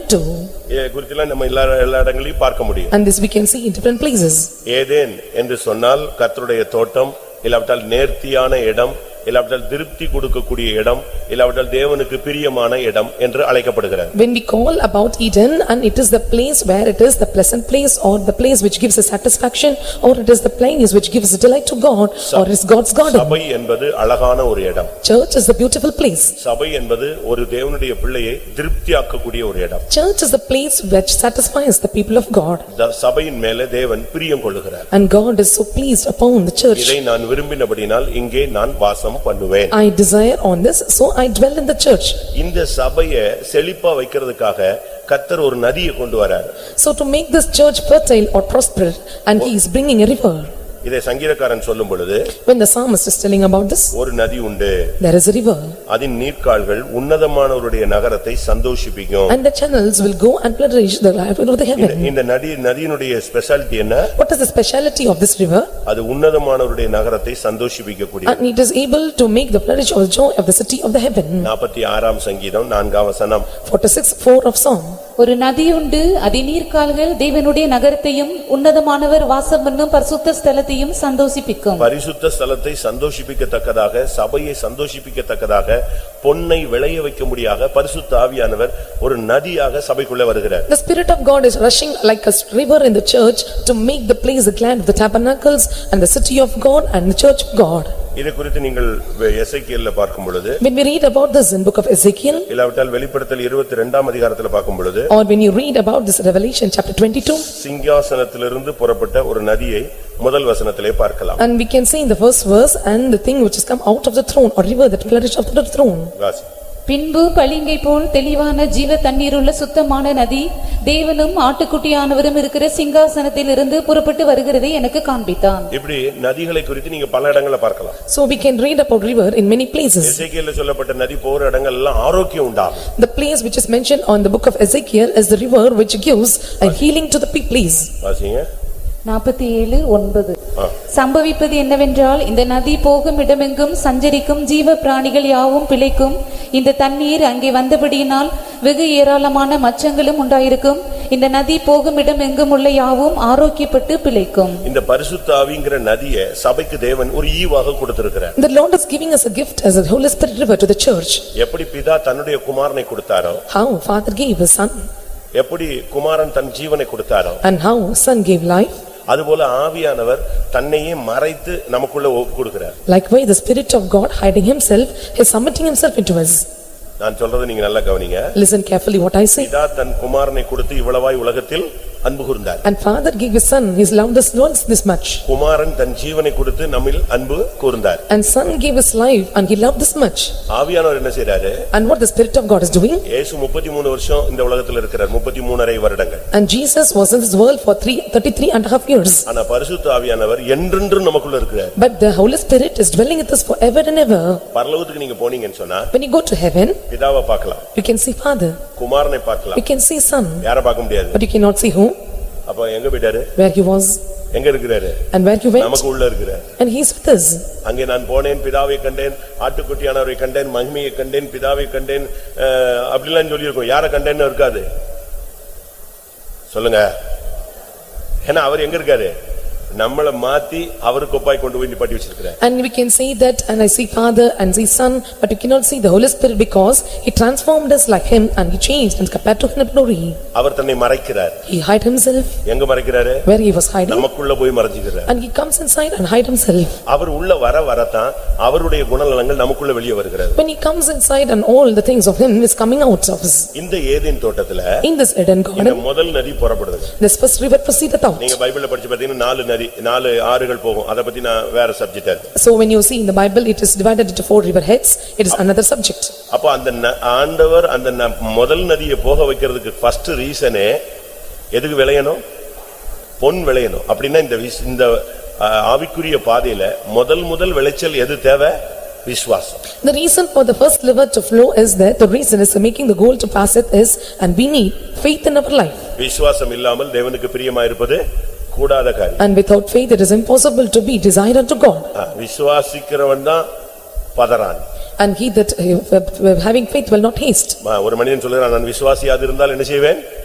two. இதை குறித்தெல்லாம் நம்ம எல்லா எல்லா இடங்களையும் பார்க்க முடியும் And this we can see in different places. ஏதேன் என்று சொன்னால் கர்த்தருடைய தோட்டம் இல்லாவிட்டால் நேர்த்தியான இடம் இல்லாவிட்டால் திருப்தி கொடுக்கக்கூடிய இடம் இல்லாவிட்டால் தேவனுக்கு பிரியமான இடம் என்று அழைக்கப்படுகிறது When we call about Eden and it is the place where it is the pleasant place or the place which gives us satisfaction or it is the place which gives delight to God or is God's garden. சபை என்பது அழகான ஒரு இடம் Church is the beautiful place. சபை என்பது ஒரு தேவனுடைய பிள்ளையை திருப்தியாக்கக்கூடிய ஒரு இடம் Church is the place which satisfies the people of God த- சபையின் மேல தேவன் பிரியம் கொள்ளுகிறார் and God is so pleased upon the church. இதை நான் விரும்பினபடினால் இங்கே நான் வாசம் பண்ணுவேன் I desire on this, so I dwell in the church. இந்த சபையை செழிப்பா வைக்கிறதுக்காக கத்தர் ஒரு நதியை கொண்டு வரார் So to make this church fertile or prosperous and he is bringing a river. இதை சங்கீதக்காரன் சொல்லும் பொழுது When the psalmist is telling about this, ஒரு நதி உண்டு there is a river அதன் நீர்க்கால்கள் உன்னதமானவருடைய நகரத்தை சந்தோஷிப்பிக்கும் and the channels will go and flourish the life of the இந்த- heaven. இந்த நதி நதியினுடைய ஸ்பெஷாலிட்டி என்ன What is the speciality of this river? அது உன்னதமானவருடைய நகரத்தை சந்தோஷிப்பிக்கக்கூடிய And it is able to make the flourish or joy of the city of the heaven. நாற்பத்தி ஆறாம் சங்கீதம் நான்காம் வசனம் Forty-six, four of Psalm. ஒரு நதி உண்டு அதிநீர்கால்கள் தேவனுடைய நகரத்தையும் உன்னதமானவர் வாசம் பண்ணும் பரிசுத்த ஸ்தலத்தையும் சந்தோஷிப்பிக்கும் பரிசுத்த ஸ்தலத்தை சந்தோஷிப்பிக்கத்தக்கதாக சபையை சந்தோஷிப்பிக்கத்தக்கதாக பொன்னை விளைய வைக்கும்படியாக பரிசுத்த ஆவியானவர் ஒரு நதியாக சபைக்குள்ள வருகிறார் The spirit of God is rushing like a river in the church to make the place the glad of the tabernacles and the city of God and the church of God. இது குறித்து நீங்கள் எசைக்கியல்ல பார்க்கும் பொழுது When we read about this in book of Ezekiel இல்லாவிட்டால் வெளிப்படுத்தல் இருபத்தி இரண்டாம் அதிகாரத்துல பார்க்கும் பொழுது or when you read about this Revelation chapter twenty-two சிங்காசனத்திலிருந்து புறப்பட்ட ஒரு நதியை முதல் வசனத்திலே பார்க்கலாம் and we can see in the first verse and the thing which has come out of the throne or river that flourished after the throne. வாசி. பின்பு பளிங்கை போல் தெளிவான ஜீவ தண்ணீருள்ள சுத்தமான நதி தேவனும் ஆட்டுக்குட்டியானவரும் இருக்கிற சிங்காசனத்திலிருந்து புறப்பட்டு வருகிறதை எனக்கு காண்பித்தான் இப்படி நதிகளை குறித்து நீங்க பல இடங்களை பார்க்கலாம் So we can read about river in many places. எசைக்கியல்ல சொல்லப்பட்ட நதி போற இடங்கள் எல்லாம் ஆரோக்கியம் உண்டாகும் The place which is mentioned on the book of Ezekiel is the river which gives a healing to the pe- place. வாசிங்க நாற்பத்தி ஏழு ஒன்பது ஆ. சம்பவிப்பது என்னவென்றால் இந்த நதி போகும் இடமெங்கும் சஞ்சரிக்கும் ஜீவ பிராணிகள் யாவும் பிழைக்கும் இந்த தண்ணீர் அங்கே வந்தபடியினால் வெகு ஏராளமான மச்சங்களும் உண்டாயிருக்கும் இந்த நதி போகும் இடமெங்கும் உள்ள யாவும் ஆரோக்கியப்பட்டு பிழைக்கும் இந்த பரிசுத்த ஆவிங்கிற நதியை சபைக்கு தேவன் ஒரு ஈவாக கொடுத்திருக்கிறார் The Lord is giving us a gift as a Holy Spirit river to the church. எப்படி பிதா தன்னுடைய குமாரனை கொடுத்தாரோ How father gave his son எப்படி குமாரன் தன் ஜீவனை கொடுத்தாரோ and how son gave life, அதுபோல ஆவியானவர் தன்னையே மறைத்து நமக்குள்ள ஒப்பு கொடுக்கிறார் likewise the spirit of God hiding himself is submitting himself into us. நான் சொல்றதை நீங்க நல்லா கவனிங்க Listen carefully what I say. பிதா தன் குமாரனை கொடுத்து இவ்வளவாய் உலகத்தில் அன்பு கூர்ந்தார் And father gave his son, his loved us once this much. குமாரன் தன் ஜீவனை கொடுத்து நம்மில் அன்பு கூர்ந்தார் And son gave his life and he loved this much. ஆவியானவர் என்ன செய்றாரு And what the spirit of God is doing? இயேசு முப்பத்தி மூணு வருஷம் இந்த உலகத்தில் இருக்கிறார் முப்பத்தி மூணரை வருடங்கள் And Jesus was in this world for three, thirty-three and a half years. ஆனா பரிசுத்த ஆவியானவர் என்றென்றும் நமக்குள்ள இருக்கிறார் But the Holy Spirit is dwelling with us forever and ever. பரலோகத்துக்கு நீங்க போனீங்கன்னு சொன்னா When you go to heaven, பிதாவை பார்க்கலாம் you can see father, குமாரனை you பார்க்கலாம் can see son, யார பார்க்க முடியாது but you cannot see who, அப்ப எங்க போயிட்டாரு where he was எங்க இருக்கிறாரு and where he went நமக்கு உள்ள இருக்கிறார் and he is with us. அங்கே நான் போனேன் பிதாவை கண்டேன் ஆட்டுக்குட்டியானவரை கண்டேன் மகிமையை கண்டேன் பிதாவை கண்டேன் அஹ், அப்படிலாம் சொல்லியிருக்கோம் யார கண்டேன்னு இருக்காது சொல்லுங்க ஏன்னா அவர் எங்க இருக்காரு நம்மளை மாத்தி அவர் கொப்பாய் கொண்டு போய் நிப்பாட்டி வச்சிருக்கிறார் And we can say that and I see father and see son, but you cannot see the Holy Spirit because he transformed us like him and he changed and compared to him glory. அவர் தன்னை மறைக்கிறார் He hide himself எங்க மறைக்கிறாரு where he was hiding நமக்குள்ள போய் மறைஞ்சுக்கிறார் and he comes inside and hide himself. அவர் உள்ள வர வரத்தான் அவருடைய குணநலங்கள் நமக்குள்ள வெளியே வருகிறது When he comes inside and all the things of him is coming out of us. இந்த ஏதேன் தோட்டத்துல In this Eden இந்த garden, முதல் நதி புறப்படுது this first river proceeded out. நீங்க பைபிள்ல படிச்சு பாத்தீங்கன்னா நாலு நதி நாலு ஆறுகள் போகும் அத பத்தி நான் வேற சப்ஜெக்ட் இருக்கு So when you see in the Bible, it is divided into four river heads, it is another subject. அப்போ அந்த ந- ஆண்டவர் அந்த ந- முதல் நதியை போக வைக்கிறதுக்கு ஃபர்ஸ்ட் ரீசனே எதுக்கு விளையணும் பொன் விளையணும் அப்படின்னா இந்த விஸ்- இந்த ஆ, ஆவிக்குரிய பாதையில முதல் முதல் விளைச்சல் எது தேவை விசுவாசம் The reason for the first river to flow is that the reason is making the goal to pass it is and we need faith in our life. விசுவாசம் இல்லாமல் தேவனுக்கு பிரியமா இருப்பது கூடாத காரியம் And without faith, it is impossible to be desired unto God. ஆ, விசுவாசிக்கிறவன் தான் பதறான் and he that uh, having faith will not haste. ம- ஒரு மனிதன் சொல்லுகிறான் நான் விசுவாசியாது இருந்தால் என்ன செய்வேன்